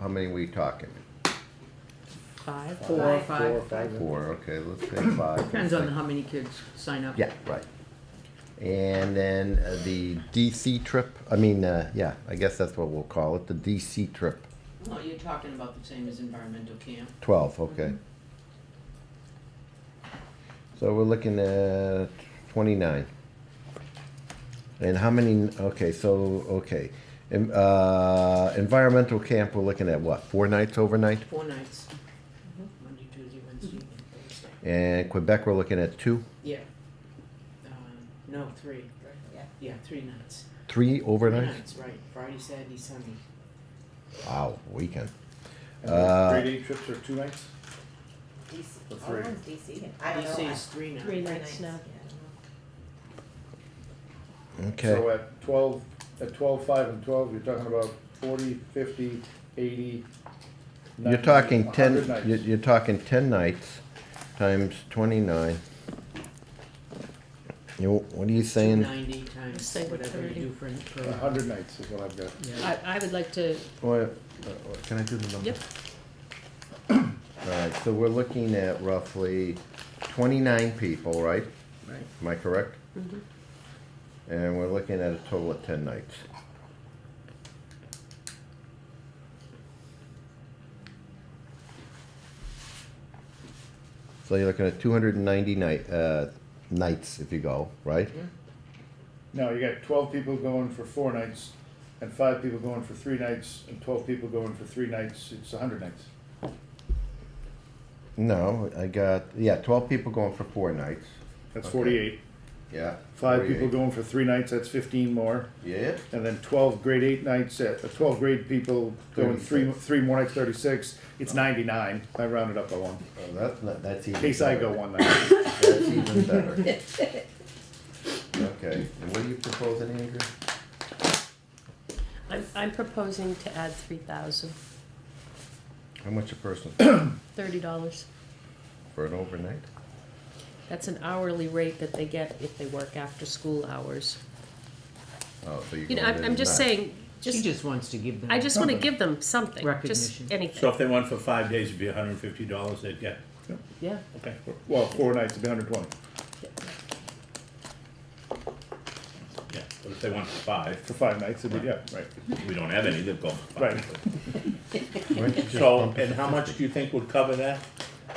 how many we talking? Five? Four, Five. four, five. Four, okay, let's say five. Depends on how many kids sign up. Yeah, right. And then uh, the DC trip, I mean, uh, yeah, I guess that's what we'll call it, the DC trip, Well, you're talking about the same as environmental camp. twelve, Mm-hmm. okay. So we're looking at twenty-nine. And how many, okay, so, okay, em- uh, environmental camp, we're looking at what, four nights overnight? Four nights. Monday, Tuesday, Wednesday, and Thursday. And Quebec, we're looking at two, Mm-hmm. Yeah. Uh, No, three. Yeah. Yeah, three nights. three Three overnight? nights, right. Friday, Saturday, Sunday. Wow, weekend. And the Uh, Three day trips or two nights? DC, The all three. ones DC. I don't know. DC I- is three nights. Three nights now. Yeah, I don't know. Okay. So uh, at twelve, at twelve, five and twelve, you're talking about forty, fifty, eighty. You're 90, talking 100 ten, nights. you're, you're talking ten nights times twenty-nine. You, what are you saying? Ninety times Say whatever you thirty. do for, for. A hundred nights is what I've got. Yeah. I, I would like to, Well, uh, Can I do the number? Yep. Alright, so we're looking at roughly twenty-nine people, right? Right. Am I correct? And we're looking at a total of ten nights. So you're looking at two hundred and ninety night, uh, nights if you go, right? No, you got twelve people going for four nights, and five people going for three nights, and twelve people going for three nights, it's a hundred nights. No, I got, yeah, twelve people going for four nights, That's Okay. forty-eight. yeah. Five 48. people going for three nights, that's fifteen more, Yeah, and then twelve grade eight nights, at, uh, twelve grade people going three, 36. three more nights, thirty-six, it's Uh-huh. ninety-nine, I rounded up by one. Oh, that's, not- that's even. In case I better. go one night. That's even better. Okay, and what are you proposing, Andrew? I'm, I'm proposing to add three thousand, How much a person thirty dollars. for an overnight? That's an hourly rate that they get if they work after school hours. Oh, so you're You going know, in I'm, I'm just at nine. saying, She just, just wants to give them. I just wanna give them something, just Recognition. So anything, if they went for five days, it'd be hundred and fifty dollars they'd get, yeah. okay. Well, four nights would be hundred twenty. Yeah, but if they went for five, For five nights, it'd be, yeah, right. we don't have any, they've gone for Right. five. Why don't you just So, bump it and how much do you think would cover that?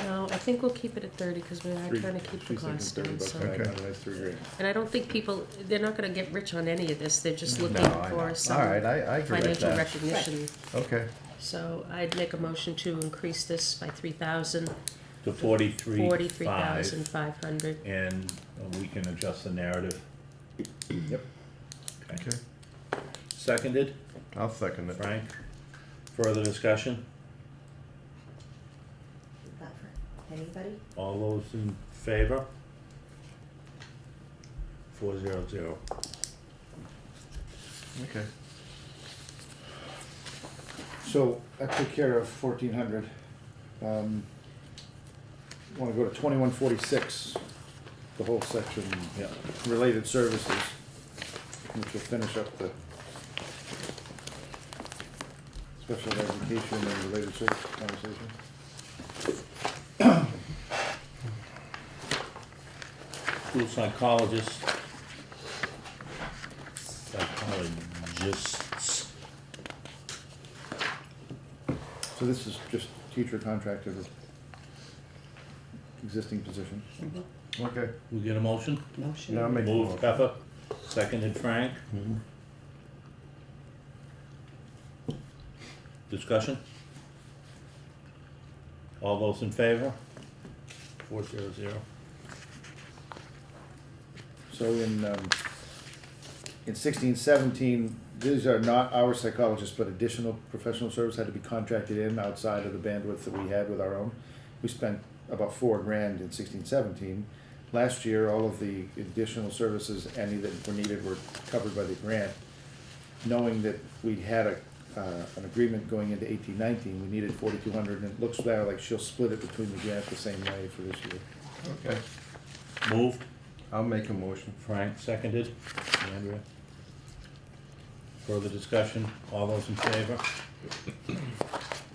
No, I think we'll keep it at thirty, cause we are Three- trying to keep the she's thinking cost 30 down, bucks so. a night, Okay. hundred nights, three grand. And I don't think people, they're not gonna get rich on any of this, they're just looking No, I know. for All right, some I, I agree with financial that. recognition. Okay, So I'd make a motion to increase this by three thousand, To forty-three, forty-three five, thousand five hundred. and uh, we can adjust the narrative. Yep. okay, Seconded, I'll second it. Frank, further discussion, Is that for anybody? all those in favor? Four zero zero. Okay. So I took care of fourteen hundred. Um, wanna go to twenty-one forty-six, the whole section, Yeah. related services, which will finish up the special education and related service conversation. School psychologist. Psychologists. So this is just teacher contracted existing position. Okay, We get a motion? Motion. now make. Moved Pepper, seconded Frank. Discussion? All those in favor? Four zero zero. So in, um, in sixteen seventeen, these are not our psychologists, but additional professional service had to be contracted in outside of the bandwidth that we had with our own. We spent about four grand in sixteen seventeen. Last year, all of the additional services, any that were needed were covered by the grant. Knowing that we had a, uh, an agreement going into eighteen nineteen, we needed forty-two hundred, and it looks now like she'll split it between the grant the same way for this year. Okay, Moved, I'll make a motion. Frank, seconded, Andrea. Further discussion, all those in favor?